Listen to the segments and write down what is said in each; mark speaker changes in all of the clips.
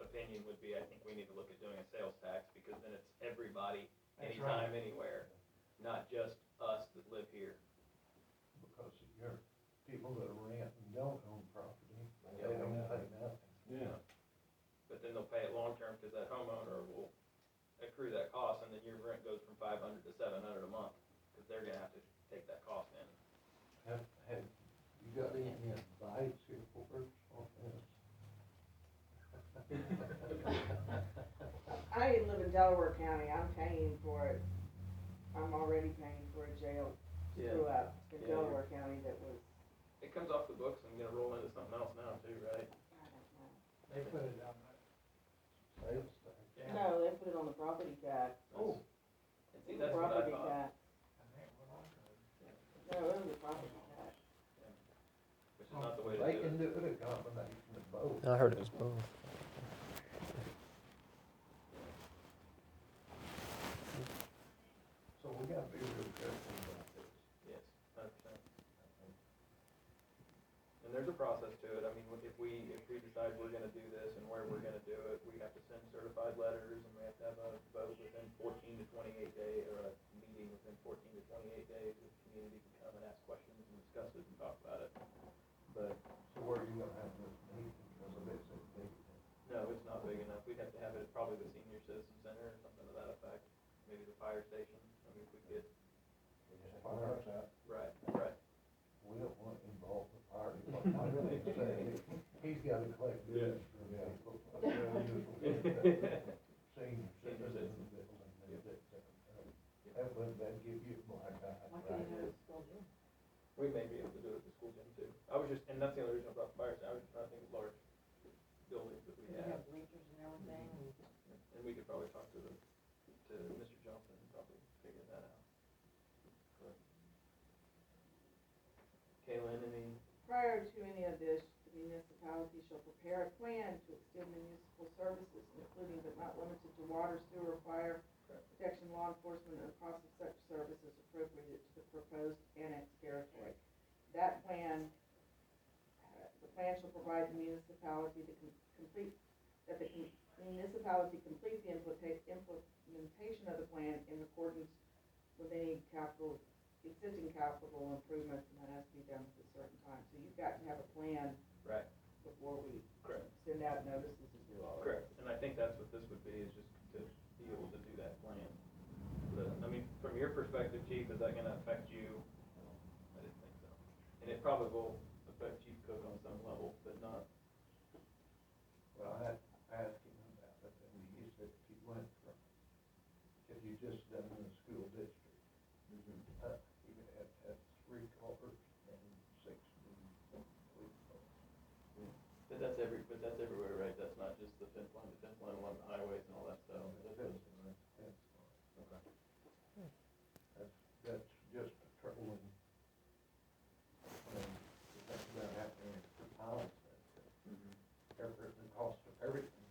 Speaker 1: opinion would be, I think we need to look at doing a sales tax, because then it's everybody,
Speaker 2: That's right.
Speaker 1: anytime, anywhere, not just us that live here.
Speaker 2: Because your people that rent and don't own property, they
Speaker 1: Yeah.
Speaker 2: don't pay nothing.
Speaker 3: Yeah,
Speaker 1: But then they'll pay it long-term, because that homeowner will accrue that cost, and then your rent goes from five hundred to seven hundred a month, because they're gonna have to take that cost in.
Speaker 2: Have, have you got any advice here for us on this?
Speaker 4: I live in Delaware County, I'm paying for it, I'm already paying for a jail screw up in
Speaker 1: Yeah.
Speaker 4: Delaware County that was,
Speaker 1: It comes off the books and gonna roll into something else now too, right?
Speaker 4: I don't
Speaker 5: They put it on the
Speaker 2: Sales tax.
Speaker 5: Yeah.
Speaker 4: know. No, they put it on the property tax.
Speaker 1: Oh. And see, that's what I
Speaker 4: Property
Speaker 1: thought,
Speaker 4: tax,
Speaker 5: And they went on to it.
Speaker 4: no, it was a property tax.
Speaker 1: which is not the way
Speaker 2: They
Speaker 1: to do
Speaker 2: can
Speaker 1: it.
Speaker 2: do it a combination of both.
Speaker 6: I heard it was both.
Speaker 2: So we gotta be real careful about this.
Speaker 1: Yes, hundred percent. And there's a process to it, I mean, if we, if we decide we're gonna do this and where we're gonna do it, we have to send certified letters, and we have to have a vote within fourteen to twenty-eight day, or a meeting within fourteen to twenty-eight days, if the community can come and ask questions and discuss it and talk about it. But,
Speaker 2: So where are you gonna have this meeting, because of this, it's big.
Speaker 1: no, it's not big enough, we'd have to have it at probably the senior citizen center or something to that effect, maybe the fire station, I mean, if we could,
Speaker 2: Fire out,
Speaker 1: right, right.
Speaker 2: we don't want to involve the fire department, I really say, he's gotta collect this from people. Senior citizens that, that, that, uh, that would, that give you a black eye.
Speaker 4: Why can't you have it spelled in?
Speaker 1: We may be able to do it at the school gym too. I was just, and that's the only reason I brought the fire, station. I was just trying to think of large buildings that we
Speaker 4: Does it
Speaker 1: have,
Speaker 4: have bleachers and everything?
Speaker 1: and we could probably talk to the, to Mr. Johnson and probably figure that out. But- Kaylin, any,
Speaker 4: Prior to any of this, the municipality shall prepare a plan to extend municipal services, including but not limited to water, sewer, fire,
Speaker 1: Correct.
Speaker 4: protection, law enforcement, and the cost of such services appropriated to the proposed annex territory. That plan, uh, the plan shall provide the municipality to com- complete, that the com- municipality complete the implita- implementation of the plan in accordance with any capital existing capital improvements, and that has to be done at a certain time, so you've got to have a plan
Speaker 1: right,
Speaker 4: before we
Speaker 1: correct,
Speaker 4: send out notices and do all that.
Speaker 1: correct, and I think that's what this would be, is just to be able to do that plan. But, I mean, from your perspective, chief, is that gonna affect you? I didn't think so. And it probably will affect Chief Cook on some level, but not
Speaker 2: Well, I had asked him about it, and he said if you went from, if you just done in the school district,
Speaker 1: Mm-hmm.
Speaker 2: uh, you would have to have three culverts and six new uh, police cars.
Speaker 1: But that's every, but that's everywhere, right? That's not just the fence line, the fence line along the highways and all that stuff. That's
Speaker 2: That's,
Speaker 1: just-
Speaker 2: that's fine.
Speaker 1: Okay.
Speaker 2: That's, that's just patrolling. And that's about happening for miles,
Speaker 1: Mm-hmm.
Speaker 2: every, the cost of everything.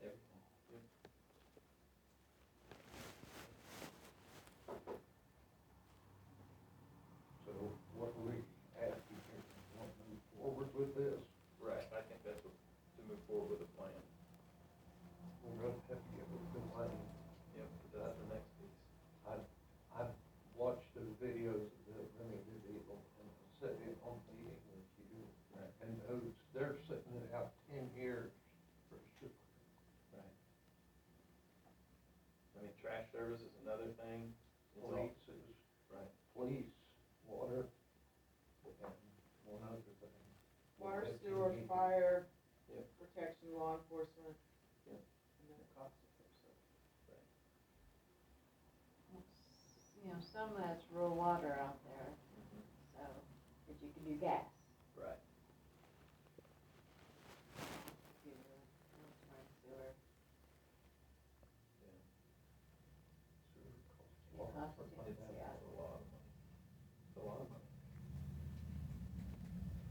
Speaker 1: Everything.
Speaker 2: So what are we asking here, we want to move forward with this?
Speaker 1: Right, I think that's what, to move forward with a plan.
Speaker 2: We're gonna have to get with the money.
Speaker 1: Yep, because that's the next piece.
Speaker 2: I've, I've watched the videos that Remy did evil and set in on meeting with you.
Speaker 1: Right.
Speaker 2: And those, they're sitting it out ten years for sure.
Speaker 1: Right. I mean, trash service is another thing. It's all-
Speaker 2: Police is,
Speaker 1: Right.
Speaker 2: police, water, and one other thing.
Speaker 4: Water,
Speaker 2: That you
Speaker 4: sewer,
Speaker 2: need.
Speaker 4: fire,
Speaker 1: Yep.
Speaker 4: protection, law enforcement,
Speaker 1: Yep.
Speaker 4: and then the cost of such services.
Speaker 1: Mm-hmm.
Speaker 7: You know, some of that's rural water out there, so, but you can do gas. uh,